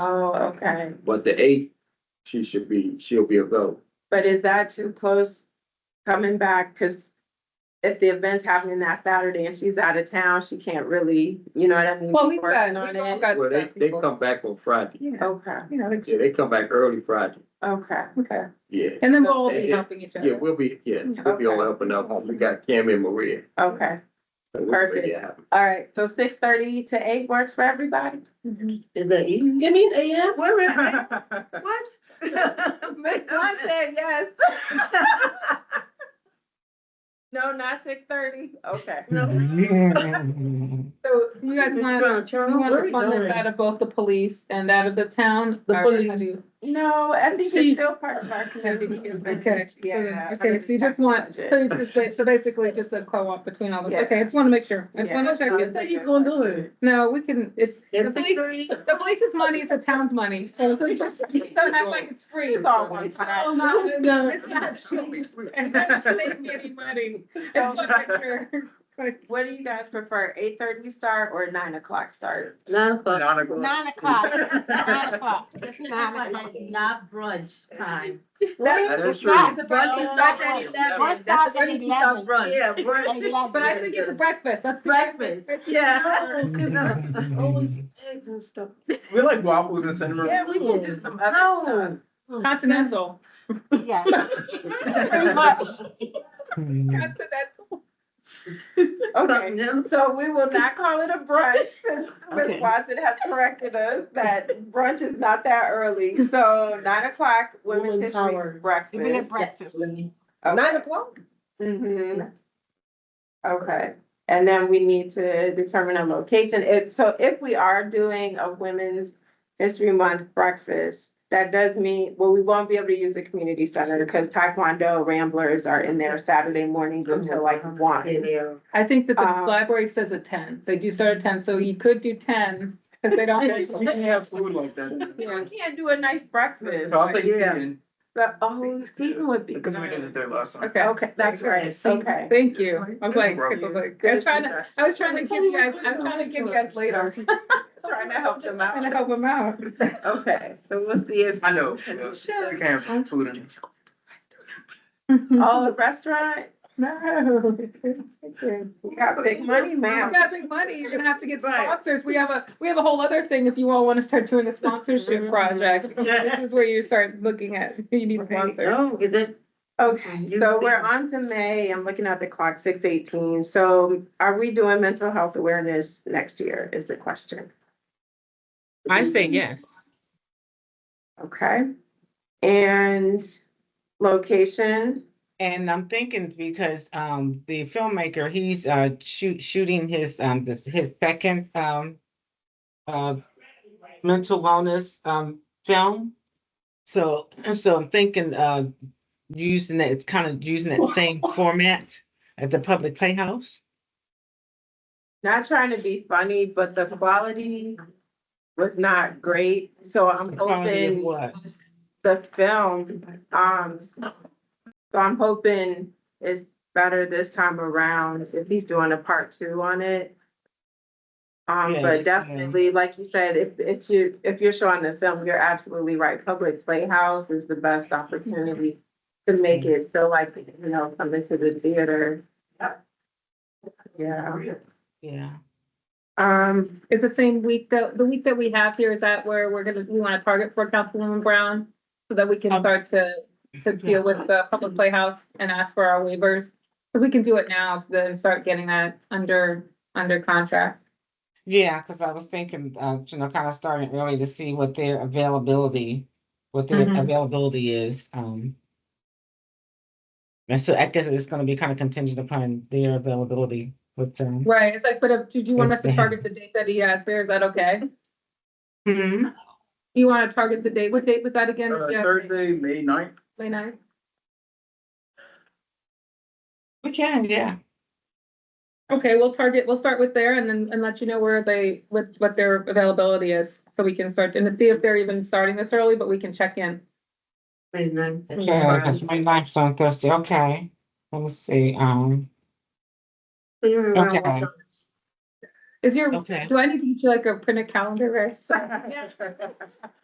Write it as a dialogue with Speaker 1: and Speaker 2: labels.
Speaker 1: Oh, okay,
Speaker 2: But the eighth, she should be, she'll be available.
Speaker 1: but is that too close coming back? Cause if the event's happening that Saturday and she's out of town, she can't really, you know what I mean?
Speaker 3: Well,
Speaker 1: be
Speaker 3: we've got,
Speaker 1: working
Speaker 3: we've
Speaker 1: on
Speaker 3: all
Speaker 1: it.
Speaker 3: got
Speaker 2: Well, they,
Speaker 3: stuff
Speaker 2: they
Speaker 3: people-
Speaker 2: come back on Friday.
Speaker 3: Yeah,
Speaker 1: Okay,
Speaker 3: you know, it's-
Speaker 2: Yeah, they come back early Friday.
Speaker 1: okay,
Speaker 3: okay.
Speaker 2: Yeah.
Speaker 3: And then we'll all be
Speaker 2: Yeah.
Speaker 3: helping each
Speaker 2: Yeah,
Speaker 3: other.
Speaker 2: we'll be, yeah, we'll be all helping out. We got Cam and Maria.
Speaker 1: okay.
Speaker 2: So we'll
Speaker 1: Perfect.
Speaker 2: make it happen.
Speaker 1: All right, so six thirty to eight works for everybody?
Speaker 3: Mhm.
Speaker 4: Is that you? Give me an AM, wait a minute. What?
Speaker 1: I said yes. No, not six thirty, okay.
Speaker 3: So you guys want, you want to fund this out
Speaker 4: The
Speaker 3: of both the police and out of the town?
Speaker 4: The
Speaker 3: or how do
Speaker 4: police.
Speaker 3: you-
Speaker 1: No, I think it's still part of our community.
Speaker 3: Okay, so then-
Speaker 1: Yeah.
Speaker 3: okay, so you just want, so you just ba- so basically just a co-op between all of
Speaker 1: Yeah.
Speaker 3: them. Okay, I just want to make sure. I just want to
Speaker 1: Yeah.
Speaker 3: check.
Speaker 4: How you gonna do it?
Speaker 3: No, we can, it's, the
Speaker 4: At
Speaker 3: police,
Speaker 4: three?
Speaker 3: the police's money, it's the town's money. So please just, don't act like it's free.
Speaker 1: It's all one time.
Speaker 3: Oh, no, it's not- it's not free. It's not making any money. I
Speaker 2: Oh,
Speaker 3: just wanna make sure.
Speaker 1: What do you guys prefer, eight thirty start or nine o'clock start?
Speaker 4: Nine o'clock.
Speaker 2: Nine o'clock.
Speaker 5: Nine o'clock, nine o'clock, nine o'clock.
Speaker 4: Not brunch time.
Speaker 2: That
Speaker 5: That's,
Speaker 2: is
Speaker 5: it's not,
Speaker 2: true.
Speaker 1: Brunch
Speaker 5: is
Speaker 1: starts
Speaker 5: at
Speaker 2: eleven.
Speaker 5: brunch starts at eleven.
Speaker 4: Oh, Yeah, brunch.
Speaker 3: But I think it's breakfast. That's. the
Speaker 4: Breakfast. Yeah. Always eggs and stuff.
Speaker 6: We like waffles and cinnamon.
Speaker 1: Yeah, we can do some other
Speaker 4: No.
Speaker 3: Continental.
Speaker 5: yes, pretty much.
Speaker 3: Continental.
Speaker 1: stuff. Okay, so we will not call it a brunch since Ms.
Speaker 4: Okay.
Speaker 1: Watson has corrected us that brunch is not that early. So nine o'clock, women's
Speaker 4: Women's
Speaker 1: history
Speaker 4: power.
Speaker 5: Give me a
Speaker 1: breakfast.
Speaker 5: breakfast.
Speaker 4: Nine o'clock?
Speaker 1: hmm Okay, and then we need to determine a location. If, so if we are doing a Women's History Month breakfast, that does mean, well, we won't be able to use the community center because Taekwondo Ramblers are in there Saturday mornings until like one.
Speaker 3: I think that the
Speaker 1: Um,
Speaker 3: library says at ten, they do start at ten, so you could do ten, because they
Speaker 6: You
Speaker 3: don't.
Speaker 6: can have food like that.
Speaker 1: You can't do a nice breakfast.
Speaker 6: So I'll take
Speaker 4: Yeah.
Speaker 6: Seaton,
Speaker 1: But, oh, Seton would be.
Speaker 6: because we did it there last time.
Speaker 3: Okay.
Speaker 1: Okay, that's right,
Speaker 3: See,
Speaker 1: okay.
Speaker 3: Thank you. I was like, I was
Speaker 6: Problem.
Speaker 3: like- I was trying to, I was trying to give you guys, I'm trying to give you guys later,
Speaker 1: Trying to help them
Speaker 3: trying to
Speaker 1: out.
Speaker 3: help them out.
Speaker 1: Okay, so we'll see if.
Speaker 6: I know, yes, you can have food in.
Speaker 1: Oh, the restaurant,
Speaker 3: No.
Speaker 1: you got big money,
Speaker 3: You
Speaker 1: man.
Speaker 3: got big money, you're gonna have to get
Speaker 4: Right.
Speaker 3: sponsors. We have a, we have a whole other thing if you all want to start doing a sponsorship
Speaker 1: Mm-hmm.
Speaker 3: project. This is where you start looking at who you need sponsors.
Speaker 4: No, Oh, is it?
Speaker 1: Okay,
Speaker 4: You
Speaker 1: so
Speaker 4: think-
Speaker 1: we're on to May. I'm looking at the clock, six eighteen. So are we doing mental health awareness next year is the question.
Speaker 7: I say yes.
Speaker 1: Okay? And location,
Speaker 7: And I'm thinking because um the filmmaker, he's uh shoot shooting his um this his second um uh mental wellness um film. So so I'm thinking uh using that it's kind of using that same format as the public playhouse.
Speaker 1: not trying to be funny, but the quality was not great. So I'm
Speaker 7: Quality of
Speaker 1: hoping
Speaker 7: what?
Speaker 1: the film, um, so I'm hoping it's better this time around if he's doing a part two on it. Um,
Speaker 7: Yeah,
Speaker 1: but
Speaker 7: it's, um,
Speaker 1: definitely, like you said, if it's you, if you're showing the film, you're absolutely right. Public Playhouse is the best opportunity to make it feel like, you know, coming to the theater. Yeah,
Speaker 7: Yeah.
Speaker 1: um,
Speaker 3: Is the same week that, the week that we have here, is that where we're gonna, we wanna target for Councilwoman Brown? So that we can
Speaker 7: Um,
Speaker 3: start to, to deal with the public playhouse and ask for our waivers? If we can do it now, then start getting that under, under contract.
Speaker 7: Yeah, because I was thinking, uh, you know, kind of starting early to see what their availability, what their
Speaker 3: Mhm.
Speaker 7: availability is. Um, and so I guess it's going to be kind of contingent upon their availability. But um,
Speaker 3: Right, it's like, but if, did you want us to target the date that he has there? Is that okay?
Speaker 7: mhm.
Speaker 3: Do you wanna target the date? What date was that again?
Speaker 6: Uh,
Speaker 3: Yeah,
Speaker 6: Thursday, May ninth,
Speaker 3: May ninth?
Speaker 7: we can, yeah.
Speaker 3: Okay, we'll target, we'll start with there and then, and let you know where they, what, what their availability is. So we can start, and see if they're even starting this early, but we can check in.
Speaker 7: Yeah, because my life's on Thursday. Okay. Let me see. Um, okay.
Speaker 3: Is your,
Speaker 7: Okay.
Speaker 3: do I need to get you like a printed calendar, Ray?